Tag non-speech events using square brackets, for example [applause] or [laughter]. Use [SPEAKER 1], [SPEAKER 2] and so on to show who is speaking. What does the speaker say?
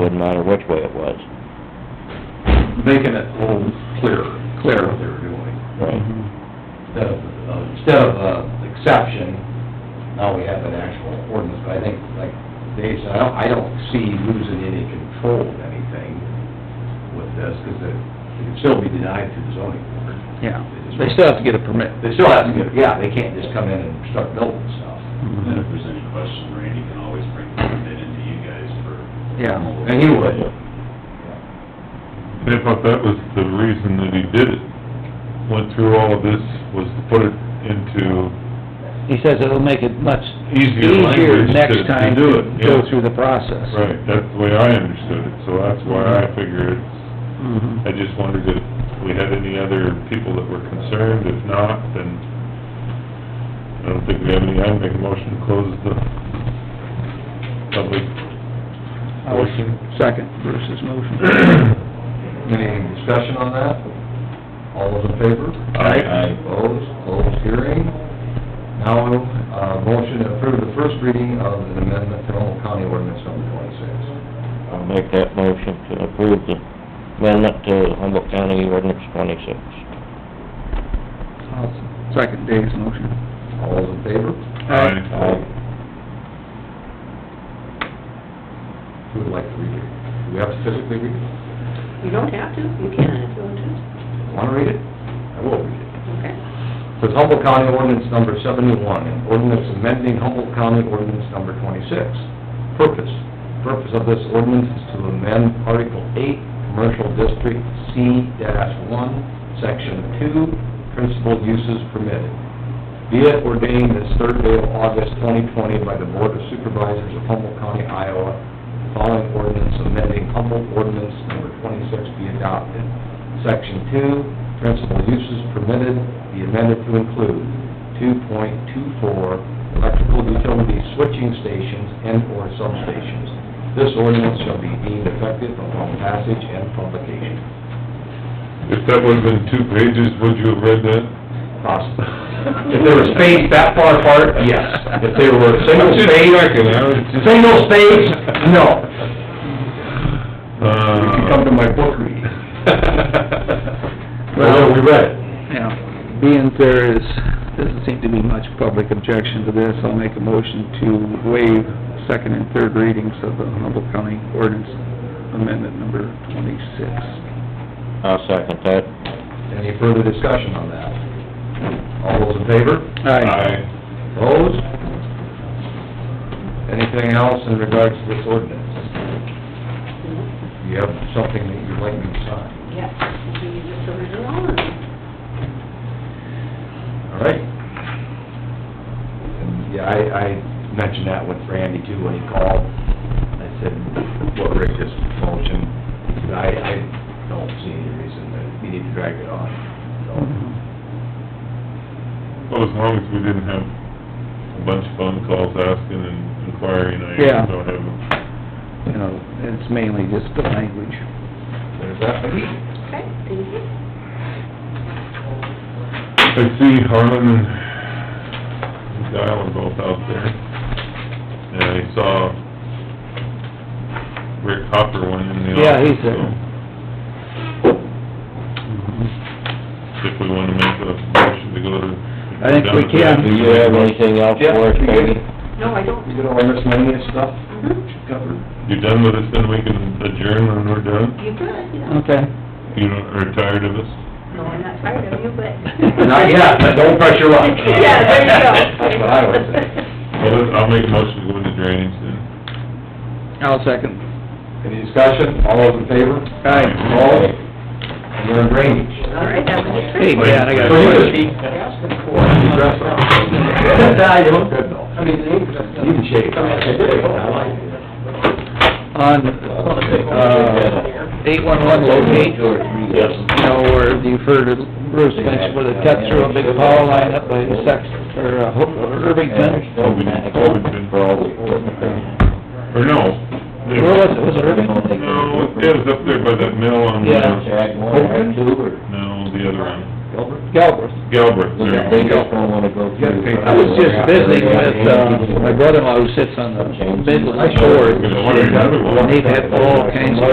[SPEAKER 1] Wouldn't matter which way it was.
[SPEAKER 2] making it a little clearer.
[SPEAKER 1] Clearer.
[SPEAKER 2] What they were doing.
[SPEAKER 1] Right.
[SPEAKER 3] Mm-hmm.
[SPEAKER 2] Instead of, uh, instead of, uh, exception, now we have an actual ordinance, but I think, like Dave said, I don't, I don't see losing any control of anything with this, because it, it can still be denied through the zoning board.
[SPEAKER 3] Yeah, they still have to get a permit.
[SPEAKER 2] They still have to get, yeah, they can't just come in and start building stuff.
[SPEAKER 4] And
[SPEAKER 1] Mm-hmm.
[SPEAKER 4] then if there's any question, Randy can always bring the bid into you guys for.
[SPEAKER 3] Yeah,
[SPEAKER 2] And he would.
[SPEAKER 5] They thought that was the reason that he did it, went through all of this, was to put it into
[SPEAKER 3] He says it'll make it much
[SPEAKER 5] easier
[SPEAKER 3] easier
[SPEAKER 5] language to
[SPEAKER 3] next
[SPEAKER 5] to
[SPEAKER 3] time
[SPEAKER 5] do
[SPEAKER 3] to
[SPEAKER 5] it.
[SPEAKER 3] go
[SPEAKER 5] yeah.
[SPEAKER 3] through the process.
[SPEAKER 5] Right, that's the way I understood it, so that's why I figure it's,
[SPEAKER 3] Mhm.
[SPEAKER 5] I just wondered if we had any other people that were concerned, if not, then I don't think we have any, I'd make a motion to close the public portion.
[SPEAKER 3] Second, Bruce's motion.
[SPEAKER 2] [clears throat] Any discussion on that? All those in favor?
[SPEAKER 5] Aye.
[SPEAKER 2] Aye. Opposed, closed hearing. Now, uh, motion to approve the first reading of an amendment to Humboldt County Ordinance number twenty-six.
[SPEAKER 1] I'll make that motion to approve the amendment to Humboldt County Ordinance twenty-six.
[SPEAKER 3] Second Dave's motion.
[SPEAKER 2] All those in favor?
[SPEAKER 5] Aye.
[SPEAKER 2] Who would like to read it? Do we have to physically read it?
[SPEAKER 6] You don't have to, you can if you want to.
[SPEAKER 2] Want to read it? I will read it.
[SPEAKER 6] Okay.
[SPEAKER 2] Says Humboldt County Ordinance Number seventy-one, an ordinance amending Humboldt County Ordinance Number twenty-six. Purpose, purpose of this ordinance is to amend Article eight, Commercial District C one, Section two, Principal Uses Permitted. Be it ordained this third day of August twenty twenty by the Board of Supervisors of Humboldt County, Iowa, the following ordinance amending Humboldt Ordinance Number twenty-six be adopted. Section two, principal uses permitted be amended to include two point two four electrical utility switching stations and/or substations. This ordinance shall be deemed effective upon passage and publication.
[SPEAKER 5] If that would've been two pages, would you have read that?
[SPEAKER 2] Possible. If they were spaced that far apart, yes. If they were single
[SPEAKER 5] I'm just
[SPEAKER 2] spaced,
[SPEAKER 5] checking, I was just-
[SPEAKER 2] single spaced, no.
[SPEAKER 5] Uh,
[SPEAKER 2] You can [laughs] come to my book reading. Well, we read it.
[SPEAKER 3] Now, being there is, doesn't seem to be much public objection to this, I'll make a motion to waive second and third readings of the Humboldt County Ordinance Amendment Number twenty-six.
[SPEAKER 1] I'll second that.
[SPEAKER 2] Any further discussion on that? All those in favor?
[SPEAKER 5] Aye.
[SPEAKER 2] Opposed? Anything else in regards to this ordinance? You have something that you'd like me to sign?
[SPEAKER 6] Yes, you can use this original and
[SPEAKER 2] All right. And, Yeah, I, I mentioned that with Randy too when he called. I said, what Rick just motioned, he said, I, I don't see any reason that we need to drag it on, so.
[SPEAKER 5] Well, as long as we didn't have a bunch of phone calls asking and inquiring,
[SPEAKER 3] Yeah.
[SPEAKER 5] I don't have, a-
[SPEAKER 3] You know, it's mainly just the language.
[SPEAKER 2] There's that.
[SPEAKER 6] Okay, thank you.
[SPEAKER 5] I see Harlan and Dial are both out there. And I saw Rick Hopper went in the office.
[SPEAKER 3] Yeah, he's there.
[SPEAKER 5] so If we wanna make a motion to go to.
[SPEAKER 3] I think we
[SPEAKER 5] down to that.
[SPEAKER 3] can.
[SPEAKER 1] Do you have anything else
[SPEAKER 2] Yeah,
[SPEAKER 1] for us,
[SPEAKER 2] we
[SPEAKER 1] Peggy?
[SPEAKER 2] good.
[SPEAKER 6] No, I don't.
[SPEAKER 2] You get all the miscellaneous stuff
[SPEAKER 6] Mhm.
[SPEAKER 2] covered?
[SPEAKER 5] You're done with us, then we can adjourn when we're done?
[SPEAKER 6] You could, yeah.
[SPEAKER 3] Okay.
[SPEAKER 5] You are tired of us?
[SPEAKER 6] No, I'm not tired of you, but.
[SPEAKER 2] Not yet, but don't press your luck.
[SPEAKER 6] [laughs] Yeah, there you go.
[SPEAKER 2] That's what I would say.
[SPEAKER 5] Well, I'll make a motion to go into drainage then.
[SPEAKER 3] I'll second.
[SPEAKER 2] Any discussion? All those in favor?
[SPEAKER 3] Aye.
[SPEAKER 2] All? And you're in drainage.
[SPEAKER 6] All right, have a good trip.
[SPEAKER 3] Hey, man, I got a
[SPEAKER 2] Well, you
[SPEAKER 3] question.
[SPEAKER 2] just- You dress up. Nah, you look good though. I mean, you can shave. [laughs] I like it.
[SPEAKER 3] On, uh, eight-one-one locate,
[SPEAKER 1] Yes.
[SPEAKER 3] you know, where you refer to Bruce mentioned where they cut through a big power line up by Sex, or uh, Ho- or Irvington.
[SPEAKER 1] For all the-
[SPEAKER 5] Or no.
[SPEAKER 3] Where was it, was it Irvington?
[SPEAKER 5] No, it was up there by that mill on,
[SPEAKER 3] Yeah.
[SPEAKER 5] uh,
[SPEAKER 1] Jack, one, or two, or-
[SPEAKER 5] no, the other one.
[SPEAKER 2] Gilbert?
[SPEAKER 3] Galbraith.
[SPEAKER 5] Galbraith, there
[SPEAKER 1] They
[SPEAKER 5] you go.
[SPEAKER 1] just don't wanna go
[SPEAKER 2] You have to
[SPEAKER 1] through.
[SPEAKER 2] pay-
[SPEAKER 3] I was just visiting with, uh, my brother-in-law who sits on the Midland Board.
[SPEAKER 5] I wanted another one.
[SPEAKER 3] And they've had all kinds of